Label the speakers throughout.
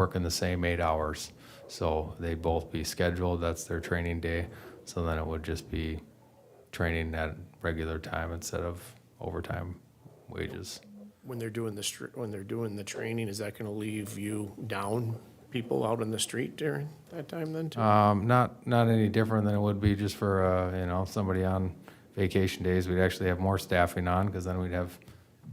Speaker 1: working the same eight hours. So they'd both be scheduled, that's their training day. So then it would just be training at regular time instead of overtime wages.
Speaker 2: When they're doing the, str- when they're doing the training, is that gonna leave you down people out on the street during that time then too?
Speaker 1: Um, not, not any different than it would be just for, uh, you know, somebody on vacation days. We'd actually have more staffing on because then we'd have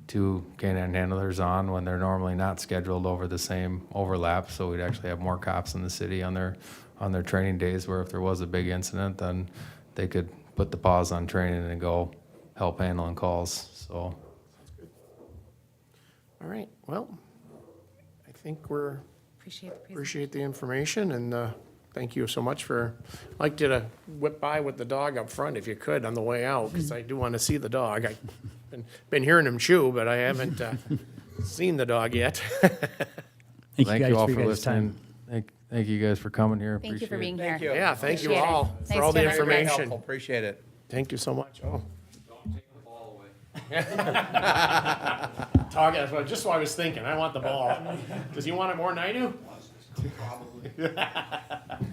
Speaker 1: two canine handlers on when they're normally not scheduled over the same overlap. So we'd actually have more cops in the city on their, on their training days where if there was a big incident, then they could put the pause on training and go help handling calls. So
Speaker 2: All right, well, I think we're,
Speaker 3: Appreciate the presentation.
Speaker 2: appreciate the information and, uh, thank you so much for, I'd like you to whip by with the dog up front if you could on the way out, cause I do wanna see the dog. I've been, been hearing him chew, but I haven't, uh, seen the dog yet.
Speaker 4: Thank you
Speaker 1: thank
Speaker 4: guys
Speaker 1: you all
Speaker 4: for your
Speaker 1: for
Speaker 4: guys' time.
Speaker 1: listening. Thank, thank you guys for coming here.
Speaker 3: Thank you for
Speaker 1: Appreciate it.
Speaker 3: being here.
Speaker 2: Yeah, thank you
Speaker 3: Appreciate it.
Speaker 2: all for
Speaker 3: Thanks,
Speaker 2: all the
Speaker 3: Jennifer.
Speaker 5: Very
Speaker 2: information.
Speaker 5: helpful. Appreciate it.
Speaker 2: Thank you so much. Oh. Dog, that's what, just what I was thinking. I want the ball. Does he want it more than I do?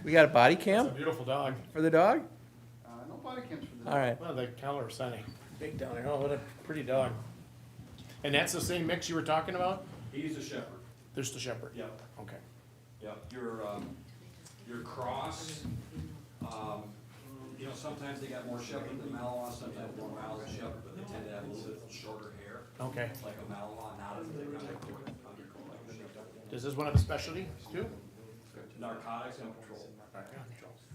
Speaker 5: We got a body cam
Speaker 2: Beautiful dog.
Speaker 5: for the dog?
Speaker 6: Uh, no body cams for this.
Speaker 5: All right.
Speaker 2: Well, the color is sunny. Big down there. Oh, what a pretty dog. And that's the same mix you were talking about?
Speaker 7: He's a shepherd,
Speaker 2: There's the shepherd.
Speaker 7: yep,
Speaker 2: Okay.
Speaker 7: yep, your, um, your cross, um, you know, sometimes they got more shepherd than Malinois, sometimes more Malinois than shepherd, but they tend to have a little bit shorter hair,
Speaker 2: Okay.
Speaker 7: like a Malinois, not as thick undercoat, undercoat like a shepherd.
Speaker 2: Is this one of the specialties too?
Speaker 7: Narcotics and control.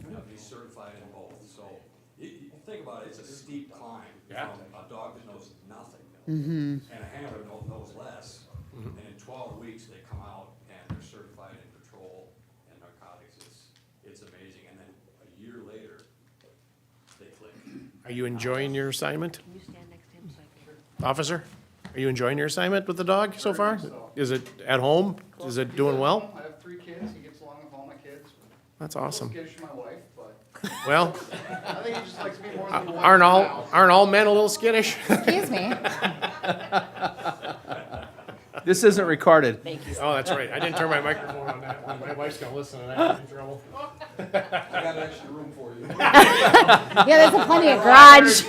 Speaker 7: You know, he's certified in both, so, you, you think about it, it's a steep climb
Speaker 2: Yeah.
Speaker 7: from a dog that knows nothing. And a handler knows, knows less, and in twelve weeks, they come out and they're certified in control and narcotics, it's, it's amazing, and then a year later, they click.
Speaker 2: Are you enjoying your assignment,
Speaker 3: Can you stand next to him so I can?
Speaker 2: officer? Are you enjoying your assignment with the dog so far? Is it at home? Is it doing well?
Speaker 6: I have three kids, he gets along with all my kids.
Speaker 2: That's
Speaker 6: A little
Speaker 2: awesome.
Speaker 6: skittish to my wife, but
Speaker 2: Well,
Speaker 6: I think he just likes me more than the wife.
Speaker 2: aren't all,
Speaker 6: now.
Speaker 2: aren't all men a little skittish?
Speaker 3: Excuse me.
Speaker 5: This isn't recorded.
Speaker 3: Thank you.
Speaker 2: Oh, that's right. I didn't turn my microphone on that one. My wife's gonna listen and I'm in trouble.
Speaker 7: I got an extra room for you.
Speaker 3: Yeah, there's plenty of garage.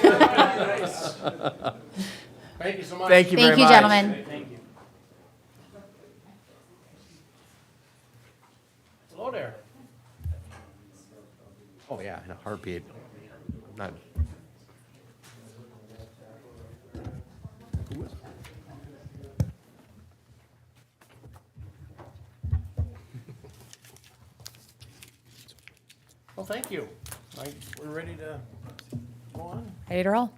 Speaker 2: Thank you so much.
Speaker 5: Thank you very
Speaker 3: Thank
Speaker 5: much.
Speaker 3: you, gentlemen.
Speaker 2: Hello there.
Speaker 5: Oh, yeah, in a heartbeat. Not,
Speaker 2: Well, thank you. I- We're ready to go on.
Speaker 3: Ready to roll?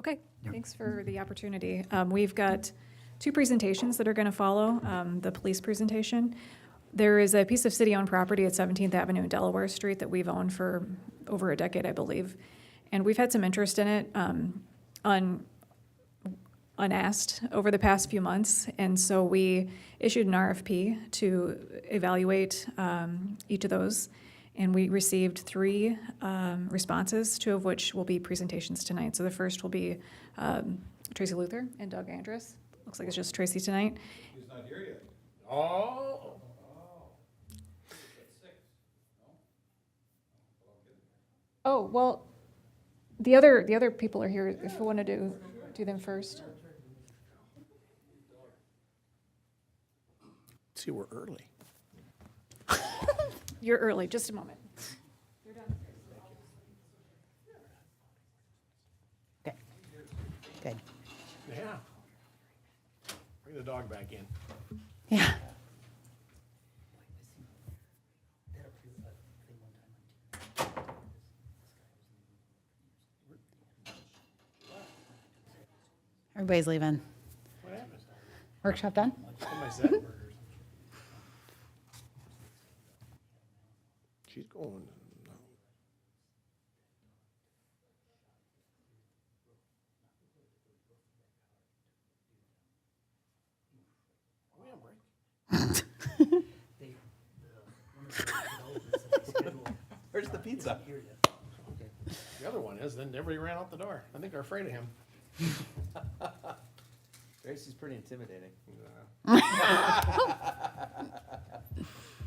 Speaker 8: Okay, thanks for the opportunity. Um, We've got two presentations that are going to follow, um, the police presentation. There is a piece of city-owned property at 17th Avenue and Delaware Street that we've owned for over a decade, I believe. And we've had some interest in it um, un- unasked over the past few months. And so we issued an RFP to evaluate um, each of those. And we received three um, responses, two of which will be presentations tonight. So the first will be um, Tracy Luther and Doug Andrus. Looks like it's just Tracy tonight.
Speaker 2: Oh.
Speaker 8: Oh, well, the other, the other people are here if we want to do, do them first.
Speaker 2: See, we're early.
Speaker 8: You're early, just a moment.
Speaker 9: Good.
Speaker 2: Yeah. Bring the dog back in.
Speaker 9: Yeah. Everybody's leaving.
Speaker 2: What happened?
Speaker 9: Workshop done?
Speaker 2: Somebody said burgers. She's going. We on break?
Speaker 5: where's the pizza?
Speaker 2: The other one is, then everybody ran out the door. I think they're afraid of him.
Speaker 5: Gracie's pretty intimidating.